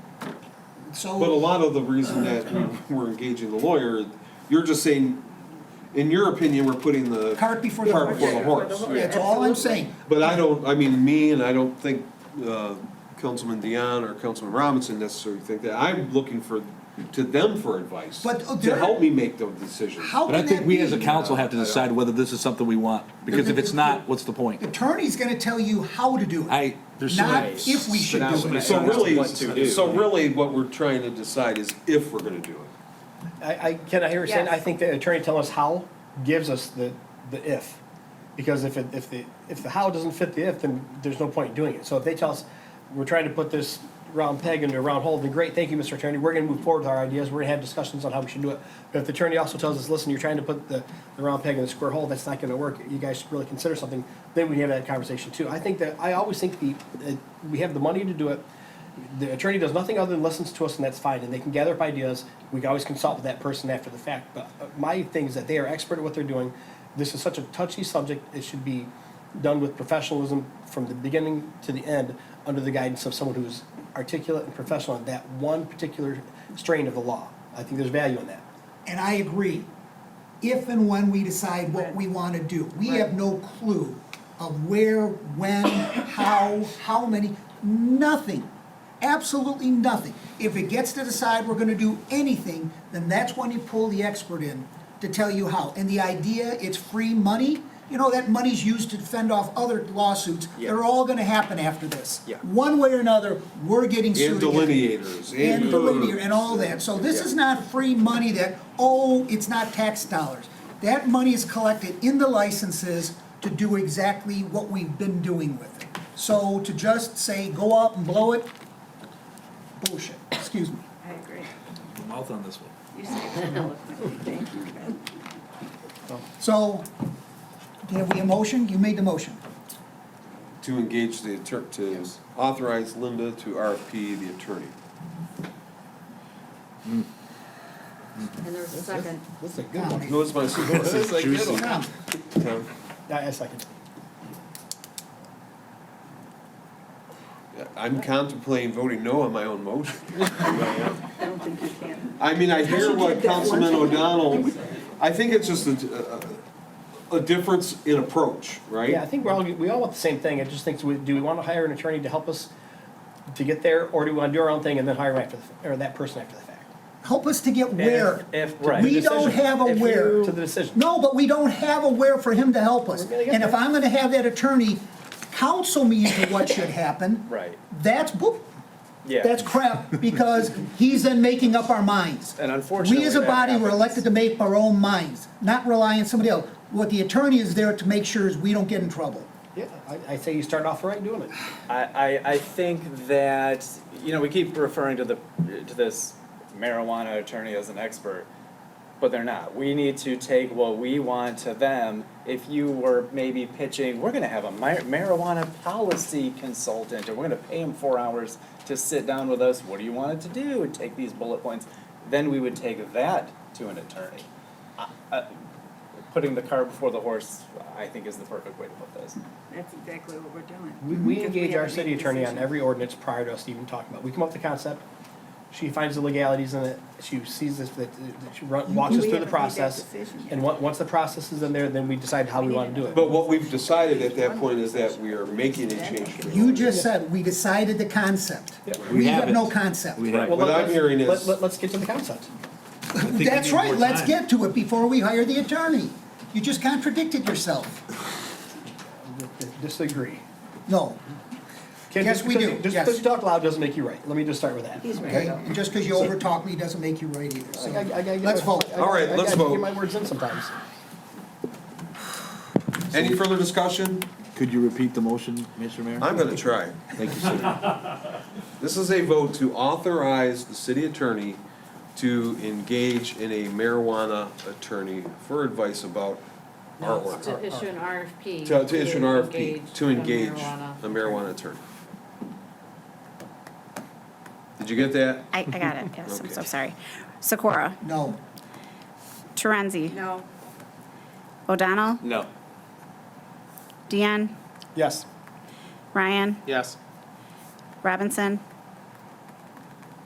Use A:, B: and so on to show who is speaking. A: But a
B: so,
A: lot of the reason that we were engaging the lawyer, you're just saying, in your opinion, we're putting the.
B: Cart before the
A: cart
B: horse.
A: before the horse.
B: that's all I'm saying.
A: But I don't, I mean, me and I don't think uh, Councilman Dion or Councilman Robinson necessarily think that. I'm looking for, to them for advice.
B: But, oh,
A: To
B: they're-
A: help me make the decision.
B: How
C: But I
B: can
C: think
B: Oh, that
C: we as a
B: be?
C: council have to decide whether this is something we want, because if it's not, what's the point?
B: Attorney's gonna tell you how to do it,
C: I, there's so
B: not
C: many.
B: if we should
D: But
B: do
D: now-
B: it.
A: So really,
D: What to do.
A: so really what we're trying to decide is if we're gonna do it.
D: I, I, can I hear you saying, I
E: Yes.
D: think the attorney telling us how gives us the, the if. Because if it, if the, if the how doesn't fit the if, then there's no point in doing it. So if they tell us, we're trying to put this round peg into a round hole, then great, thank you, Mr. Attorney, we're gonna move forward with our ideas, we're gonna have discussions on how we should do it. But if the attorney also tells us, listen, you're trying to put the, the round peg in the square hole, that's not gonna work, you guys should really consider something, then we have that conversation too. I think that, I always think the, that we have the money to do it, the attorney does nothing other than listens to us, and that's fine, and they can gather up ideas. We can always consult with that person after the fact, but uh, my thing is that they are expert at what they're doing. This is such a touchy subject, it should be done with professionalism from the beginning to the end, under the guidance of someone who's articulate and professional in that one particular strain of the law. I think there's value in that.
B: And I agree, if and when we decide what
E: Right.
B: we want to do. We
E: Right.
B: have no clue of where, when, how, how many, nothing, absolutely nothing. If it gets to decide we're going to do anything, then that's when you pull the expert in to tell you how. And the idea, it's free money, you know, that money's used to fend off other lawsuits. They're all going to happen after this.
D: Yeah.
B: One way or another, we're getting sued
A: And
B: again
A: delineators.
B: and
A: herbs.
B: delinear and all that. So this is not free money that, oh, it's not tax dollars. That money is collected in the licenses to do exactly what we've been doing with it. So to just say, go out and blow it, bullshit, excuse me.
E: I agree.
C: Mouth on this one.
E: You say it eloquently, thank you, Ben.
B: So, have we a motion? You made the motion.
A: To engage the attorney, to authorize Linda to RFP the attorney.
E: And there's a second.
D: That's a good
B: Now,
A: No, it's my, it's like, you know,
B: now,
A: Tom,
D: I, I second.
A: I'm contemplating voting no on my own motion.
E: I don't think you can.
A: I mean, I hear what Councilman O'Donnell, I think it's just a, a, a difference in approach,
D: Yeah, I
A: right?
D: think we're all, we all want the same thing, I just think, we- do we wanna hire an attorney to help us to get there, or do we wanna do our own thing and then hire after, the f- or that person after the fact?
B: Help us to get where.
D: If- if- right.
B: We
D: The
B: don't
D: decision.
B: have a
D: If
B: where.
D: you- To the decision.
B: No, but we don't have a where for him to help us.
D: We're gonna get
B: And if
D: there.
B: I'm gonna have that attorney counsel me into what should happen.
F: Right.
B: That's, boop,
F: Yeah.
B: that's crap, because he's then making up our minds.
F: And unfortunately,
B: We as a
F: that
B: body were
F: happens.
B: elected to make our own minds, not rely on somebody else. What the attorney is there to make sure is we don't get in trouble.
D: Yeah, I, I say you start off right doing it.
F: I, I, I think that, you know, we keep referring to the, to this marijuana attorney as an expert, but they're not. We need to take what we want to them. If you were maybe pitching, we're gonna have a mar- marijuana policy consultant, and we're gonna pay him four hours to sit down with us, what do you want it to do, and take these bullet points, then we would take that to an attorney. I- I- Putting the cart before the horse, I think is the perfect way to put this.
E: That's exactly what we're doing.
D: We, we
E: Because
D: engage
E: have
D: our
E: to
D: city
E: make a
D: attorney on
E: decision.
D: every ordinance prior to us even talking about, it. we come up with the concept, she finds the legalities in it, she sees this, that, that she run- walks us
E: We
D: through
E: haven't
D: the
E: made that
D: process.
E: decision yet.
D: And on- once the process is in there, then we decide how we wanna do it.
A: But what we've decided at that point is that we are making a change. to the
B: You just said, we decided the concept.
D: Yeah.
B: We
C: We
B: have
C: haven't.
B: no concept.
C: We have,
D: Well,
A: What
D: let-
A: I'm hearing
D: let-
A: is-
D: Let, us get to the concept.
B: That's right, let's get to it before we hire the attorney. You just contradicted yourself.
D: Disagree.
B: No,
D: Ken,
B: Yes,
D: just
B: we
D: because
B: do.
D: you- Just
B: Yes.
D: because you talk loud doesn't make you right, let me just start with that.
E: He's
B: okay?
E: right.
B: And just because you overtalk me doesn't make you right either,
D: I- I- I
B: so.
D: gotta get
B: Let's
D: my-
B: vote.
D: I gotta-
A: All right,
D: I
A: let's
D: gotta
A: vote.
D: Get my words in sometimes.
A: Any further discussion?
C: Could you repeat the motion, Mr. Mayor?
A: I'm gonna try.
C: Thank you, sir.
A: This is a vote to authorize the city attorney to engage in a marijuana attorney for advice about our
G: To
A: ordinance.
G: issue an RFP.
A: To, to issue an RFP, to
G: a
A: engage a
G: marijuana-
A: marijuana attorney. Did you get that?
H: I, I got it, yes, I'm so
A: Okay.
H: sorry. Sikora?
B: No,
H: Torenzi?
E: No,
H: O'Donnell?
F: No.
H: Deanne?
D: Yes.
H: Ryan?
F: Yes.
H: Robinson?